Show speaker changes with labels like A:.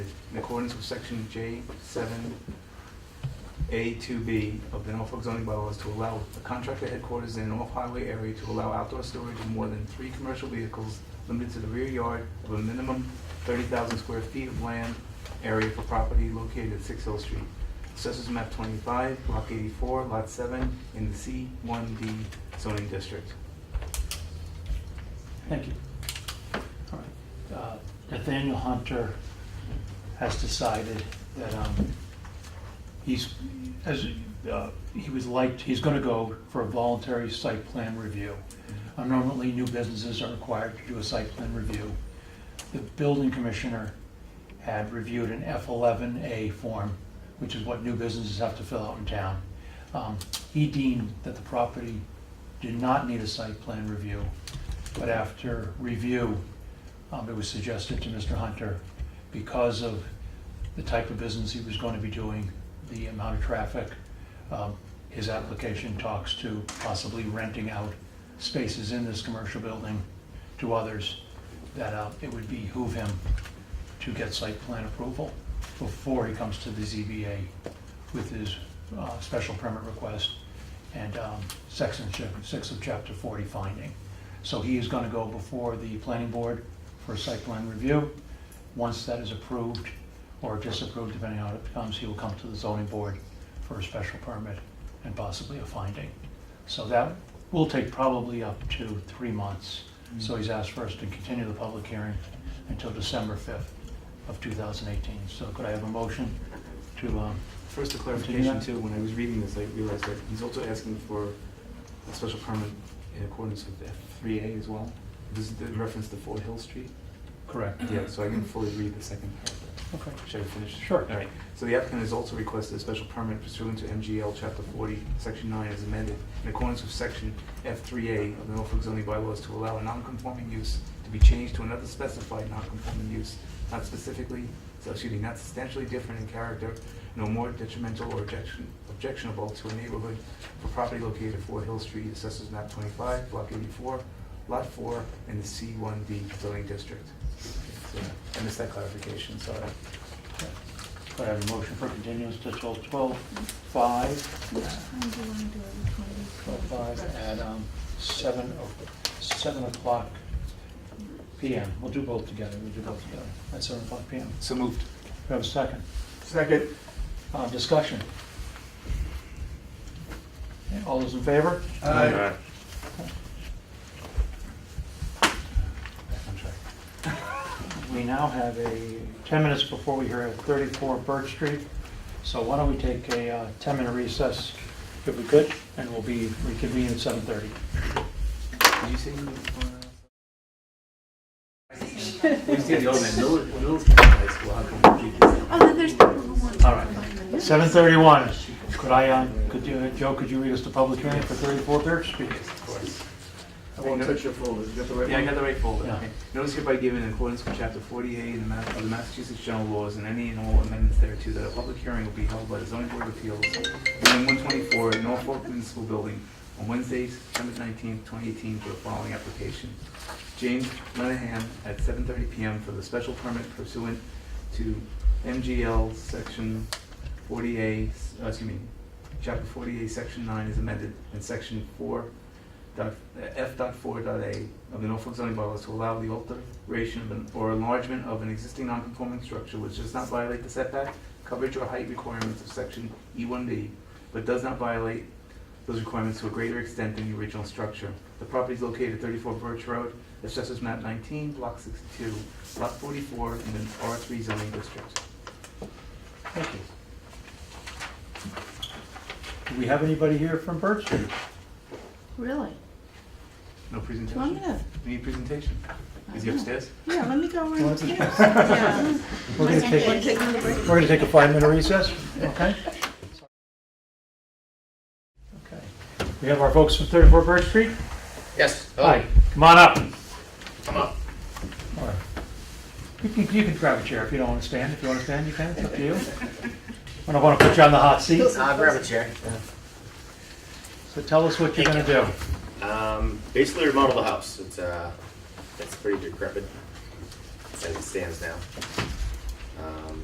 A: In accordance with section J seven A two B of the Norfolk zoning bylaws to allow the contractor headquarters in an off-highway area to allow outdoor storage of more than three commercial vehicles limited to the rear yard of a minimum thirty thousand square feet of land area for property located at Six Hill Street. Assessors map twenty-five, block eighty-four, lot seven, in the C one D zoning district.
B: Thank you. All right. Uh, Nathaniel Hunter has decided that um, he's, as, uh, he was like, he's going to go for a voluntary site plan review. Uh, Normally, new businesses are required to do a site plan review. The building commissioner had reviewed an F11A form, which is what new businesses have to fill out in town. Um, He deemed that the property did not need a site plan review, but after review, um, it was suggested to Mr. Hunter, because of the type of business he was going to be doing, the amount of traffic, um, his application talks to possibly renting out spaces in this commercial building to others, that uh, it would behoove him to get site plan approval before he comes to the ZBA with his uh, special permit request and um, section chap- six of chapter 40 finding. So he is going to go before the planning board for a site plan review. Once that is approved or disapproved, depending on how it comes, he will come to the zoning board for a special permit and possibly a finding. So that will take probably up to three months.
A: Mm.
B: So he's asked for us to continue the public hearing until December 5th of 2018. So could I have a motion to, um,
A: First, a clarification
B: Continue
A: too, when I was reading this, I realized that he's also asking for a special permit in accordance with F three A as well. This is the reference to Fort Hill Street.
B: correct?
A: Yeah, so I can fully read the second paragraph.
B: Okay.
A: Should I finish?
B: Sure.
A: All right. So the applicant has also requested a special permit pursuant to MGL Chapter 40, Section 9 as amended, in accordance with Section F3A of the Norfolk zoning bylaws to allow a non-conforming use to be changed to another specified non-conforming use, not specifically, so excuse me, not substantially different in character, no more detrimental or objection- objectionable to a neighborhood for property located at 4 Hill Street, Assessors Map 25, Block 84, Lot 4, in the C1D zoning district. So, I missed that clarification, sorry.
B: Could I have a motion for continuance to 12/5?
C: Which time do you want to do it? Which one do you-
B: 12/5 at um, 7, o- 7 o'clock PM. We'll do both together, we'll do both together at 7 o'clock PM.
A: So moved.
B: Do I have a second?
A: Second.
B: Uh, Discussion? Okay, All those in favor?
A: Aye.
B: We now have a, 10 minutes before we hear at 34 Birch Street, so why don't we take a 10-minute recess if we could, and we'll be reconvene at 7:30.
A: Did you say you were? We used to get the old man, Middle, Middle's high school, how come we keep this?
C: Oh, then there's people who want.
B: All right. 7:31, could I, um, could you, Joe, could you read us the public hearing for 34 Birch Street?
A: Yes, of course.
D: I won't touch your folders, you got the right
A: Yeah, I got
D: one?
A: the right folder.
B: Yeah.
A: Okay. Notice hereby given in accordance with chapter forty-eight of the Ma- of the Massachusetts General Laws and any and all amendments thereto, that a public hearing will be held by the zoning board of appeals, room one twenty-four, Norfolk Municipal Building, on Wednesday, September nineteenth, twenty eighteen, for the following application. James Lenahan at seven thirty PM for the special permit pursuant to MGL section forty-eight, uh, excuse me, chapter forty-eight, section nine is amended, and section four dot, eh, F dot four dot A of the Norfolk zoning bylaws to allow the alteration of an, or enlargement of an existing non-conforming structure which does not violate the setback, coverage or height requirements of section E one B, but does not violate those requirements to a greater extent than the original structure. The property is located at thirty-four Birch Road, assessors map nineteen, block sixty-two, lot forty-four, in an R three zoning district.
B: Thank you. Do we have anybody here from Birch Street?
C: Really?
A: No
C: Do you want me
A: presentation?
C: to?
A: Any presentation? Is he upstairs?
C: Yeah, let me go over
B: Well,
C: and
B: that's-
C: take. Yeah.
B: We're gonna
C: Want to
B: take,
C: take another break?
B: we're gonna take a five-minute recess, okay? Okay. We have our folks from 34 Birch Street?
E: Yes.
B: Hi, come on up.
E: Oh. Come up.
B: All right. You can, you can grab a chair if you don't want to stand. If you want to stand, you can, it's up to you. I don't want to put you on the hot seat,
E: Uh, grab a chair.
B: so tell us what you're going to do.
E: Um, basically remodel the house. It's uh, it's pretty decrepit as it stands now. Um,